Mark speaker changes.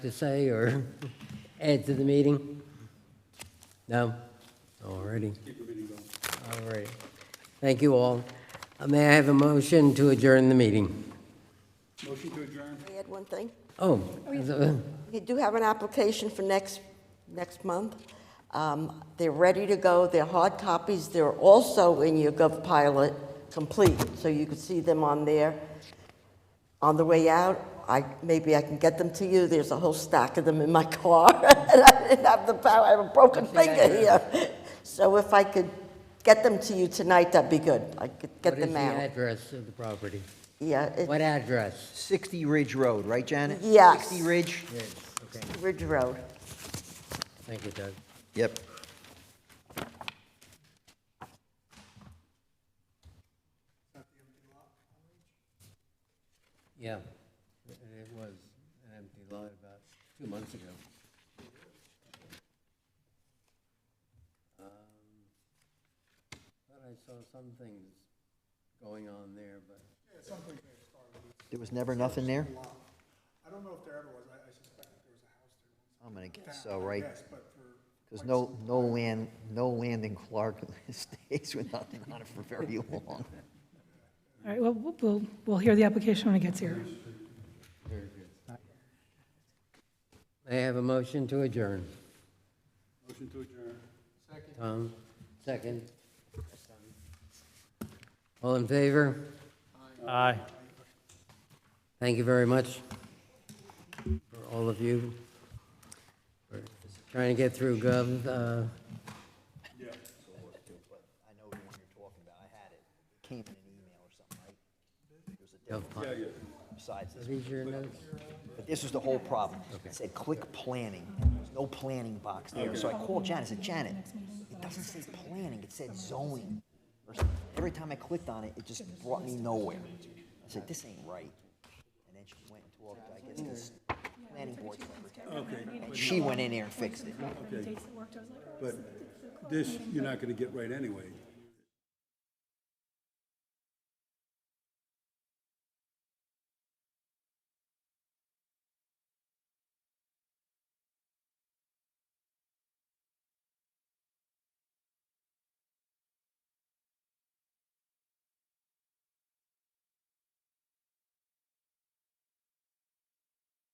Speaker 1: to say or add to the meeting? No? Alrighty. All right. Thank you all. Uh, May I have a motion to adjourn the meeting?
Speaker 2: Motion to adjourn.
Speaker 3: May I add one thing?
Speaker 1: Oh, is it-
Speaker 3: We do have an application for next, next month. Um, They're ready to go, they're hard copies, they're also in your GovPilot complete, so you can see them on there. On the way out, I, maybe I can get them to you, there's a whole stack of them in my car, and I didn't have the power, I have a broken finger here. So if I could get them to you tonight, that'd be good, I could get them
Speaker 1: What is
Speaker 3: out.
Speaker 1: the address of the property?
Speaker 3: Yeah, it's
Speaker 1: What address?
Speaker 4: 60 Ridge Road, right, Janet?
Speaker 3: Yes.
Speaker 4: 60 Ridge?
Speaker 1: Okay,
Speaker 3: Ridge Road.
Speaker 1: thank you, Doug.
Speaker 4: Yep.
Speaker 1: Yeah, and it was an empty lot about two months ago. Um, Thought I saw some things going on there, but.
Speaker 2: Something may have started.
Speaker 4: There was never nothing there?
Speaker 2: I don't know if there ever was. I I suspect that there was a house there.
Speaker 4: I'm gonna guess so, right?
Speaker 2: Yes, but for.
Speaker 4: Because no, no land, no land in Clark stays with nothing on it for very long.
Speaker 5: All right, well, we'll- we'll, we'll hear the application when it gets here.
Speaker 1: May I have a motion to adjourn?
Speaker 2: Motion to adjourn. Second.
Speaker 1: Tom, second. All in favor?
Speaker 6: Aye.
Speaker 1: Thank you very much for all of you. for Trying to get through Gov, uh,
Speaker 2: Yeah.
Speaker 4: I know the one you're talking about, I had it, It came in an email or something, right? There was a
Speaker 1: Gov,
Speaker 4: different
Speaker 1: Pon-
Speaker 4: besides this,
Speaker 1: these your notes?
Speaker 4: but this was the whole problem. It said click planning, there's no planning box there, so I called Janet, I said, Janet, it doesn't say planning, it said zoning. or something." Every time I clicked on it, it just brought me nowhere. I said, this ain't right. And then she went and talked, I guess, this planning board secretary, and she went in there and fixed it.
Speaker 2: But this, you're not going to get right anyway.